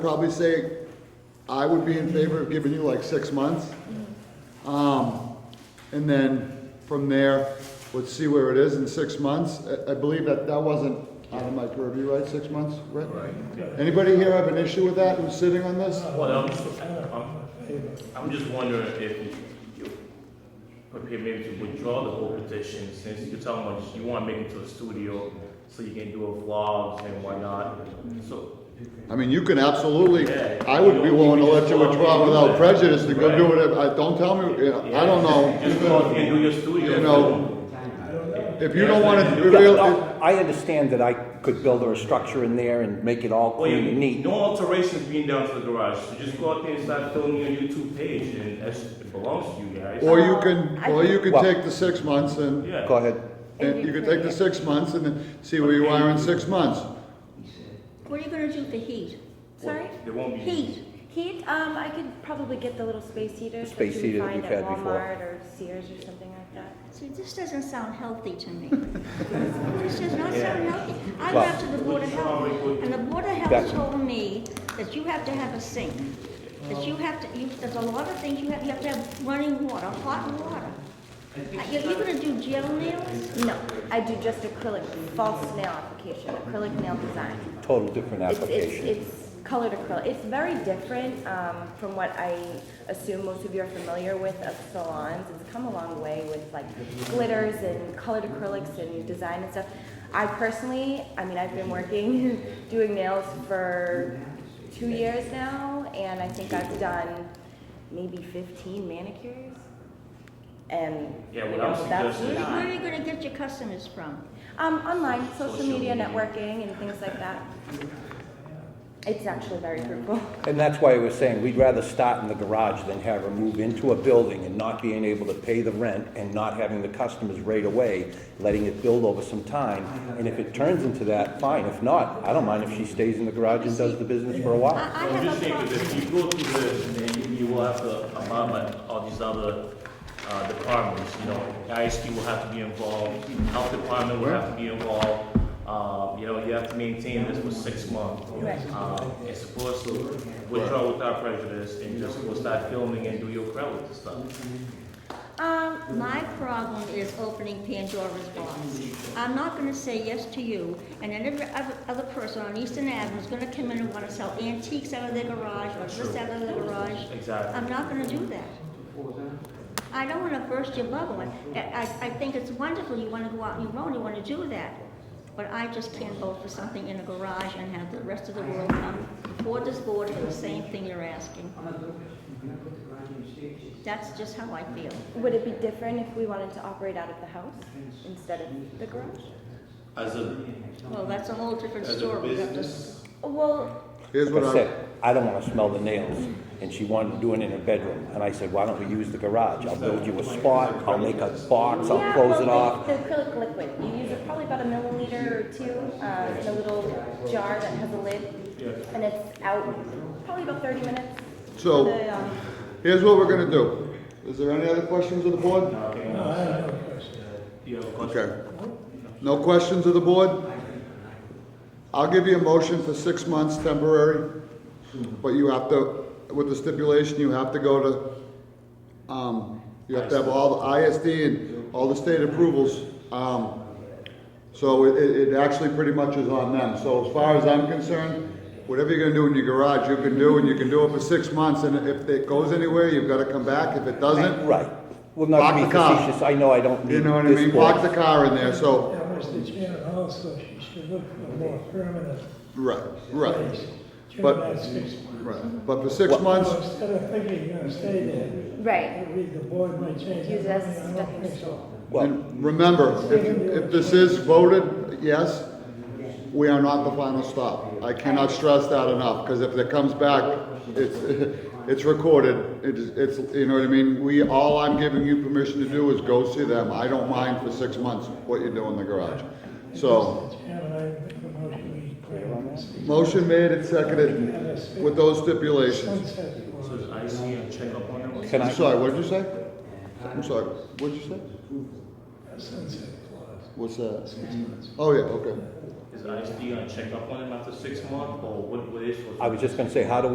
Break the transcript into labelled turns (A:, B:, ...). A: probably say I would be in favor of giving you like six months. Um, and then from there, let's see where it is in six months. I, I believe that that wasn't out of my purview, right? Six months, right? Anybody here have an issue with that who's sitting on this?
B: Well, I'm, I'm, I'm just wondering if you- you prepare maybe to withdraw the whole petition, since you're talking about you wanna make it to a studio, so you can do a vlogs and whatnot, so.
A: I mean, you can absolutely, I would be willing to let you withdraw without prejudice to go do whatever. I, don't tell me, you know, I don't
B: Just go
A: know.
B: and do your studio.
A: You know, If you don't wanna,
B: Yeah,
A: if
C: Yeah,
A: you-
C: no, I understand that I could build a structure in there and make it all
B: Well,
C: clean
B: you
C: and
B: need
C: neat.
B: no alterations being done to the garage, so just go out there and start filming your YouTube page, and that's, it belongs to you guys.
A: or you can, or you can
C: Well-
A: take the six months and
B: Yeah.
C: Go ahead.
A: And you could take the six months and then see where you are in six months.
D: What are you gonna do with the heat? Sorry?
B: There won't be.
D: Heat.
E: Heat, um, I could probably get the little space heaters that
C: Space
E: you
C: heater that
E: find
C: we've
E: at
C: had before.
E: Walmart or Sears or something like that.
D: See, this doesn't sound healthy to me. This does not sound healthy. I
C: Well-
D: went to the Board of Health, and the Board of
C: That-
D: Health told me that you have to have a sink. That you have to, you, there's a lot of things you have, you have to have running water, hot water. Are you you gonna do gel nails?
E: No, I do just acrylic, false nail application, acrylic nail design.
C: Total different
E: It's, it's,
C: application.
E: it's colored acrylic. It's very different, um, from what I assume most of you are familiar with of salons. It's come a long way with like glitters and colored acrylics and design and stuff. I personally, I mean, I've been working, doing nails for two years now, and I think I've done maybe fifteen manicures. And, you
B: Yeah, what
E: know,
B: I'm
E: that's
B: suggesting-
D: Where
E: not.
D: are you gonna get your customers from?
E: Um, online, social
B: Social
E: media
B: media.
E: networking and things like that. It's actually very fruitful.
C: And that's why I was saying, we'd rather start in the garage than have her move into a building and not being able to pay the rent and not having the customers right away, letting it build over some time. And if it turns into that, fine. If not, I don't mind if she stays in the garage and does the business for a
D: I,
C: while.
D: I
B: I'm just
D: have a
B: saying,
D: problem.
B: because if you go through this, then you, you will have to abide by all these other, uh, departments, you know, ISD will have to be involved, health department will have to be involved, uh, you know, you have to maintain this for six months.
E: Right.
B: Uh, it's supposed to withdraw without prejudice, and just go start filming and do your credit and stuff.
D: Um, my problem is opening Pandora's box. I'm not gonna say yes to you, and then every other, other person on Eastern Avenue is gonna come in and wanna sell antiques out of their garage, or this out of their garage.
B: Exactly.
D: I'm not gonna do that. I don't wanna burst your bubble, I, I, I think it's wonderful, you wanna go out on your own, you wanna do that. But I just can't vote for something in a garage and have the rest of the world come before this board for the same thing you're asking. That's just how I feel.
E: Would it be different if we wanted to operate out of the house instead of the garage?
B: As a,
D: Well, that's a whole different
B: as a
D: story. We have to-
B: business,
E: Well,
A: Here's
C: Like
A: what
C: I
A: I,
C: said, I don't want to smell the nails. And she wanted to do it in her bedroom. And I said, why don't we use the garage? I'll build you a spot, I'll make a box, I'll
E: yeah,
C: close
E: well,
C: it
E: the-
C: off.
E: The acrylic liquid, you use it probably about a milliliter or two uh, in a little jar that has a lid,
B: Yeah.
E: and it's out probably about 30 minutes.
A: So-
E: The, um,
A: here's what we're gonna do. Is there any other questions of the board?
B: you know,
A: Okay. No questions of the board? I'll give you a motion for six months temporary, but you have to, with the stipulation, you have to go to, um, you have to have all the ISD and all the state approvals. Um, so it, it it actually pretty much is on them. So as far as I'm concerned, whatever you're gonna do in your garage, you can do, and you can do it for six months, and if it goes anywhere, you've gotta come back. If it doesn't,
C: Right. Well, not to
A: Lock
C: be
A: the car.
C: facetious, I know I don't need
A: you know what I mean?
C: this
A: Park the
C: board.
A: car in there, so.
F: That was the chairman also, she should look for more permanent
A: Right, right,
F: place.
A: But-
F: During that six months.
A: right. But for six months,
F: So instead of thinking you're gonna stay there,
E: Right.
F: I read the board might change.
E: Use
F: their
E: as
F: mind. I don't
E: stepping
F: think so.
C: Well,
A: and remember, if, if this is voted yes, we are not the final stop. I cannot stress that enough, because if it comes back, it's, it's recorded, it is, it's, you know what I mean? We, all I'm giving you permission to do is go see them. I don't mind for six months what you do in the garage. So,
F: Mr. Chairman, I make a motion we grant this
A: motion made and seconded with those stipulations.
F: sunset
B: So
F: board.
B: does IC and check up on them?
C: can
A: I'm
C: I,
A: sorry, what did you say? I'm sorry, what did you say?
F: a sunset
A: What's
F: clause.
A: that? Oh, yeah, okay.
B: Is ISD gonna check up on him after six months, or what, what is?
C: I was just gonna say, how do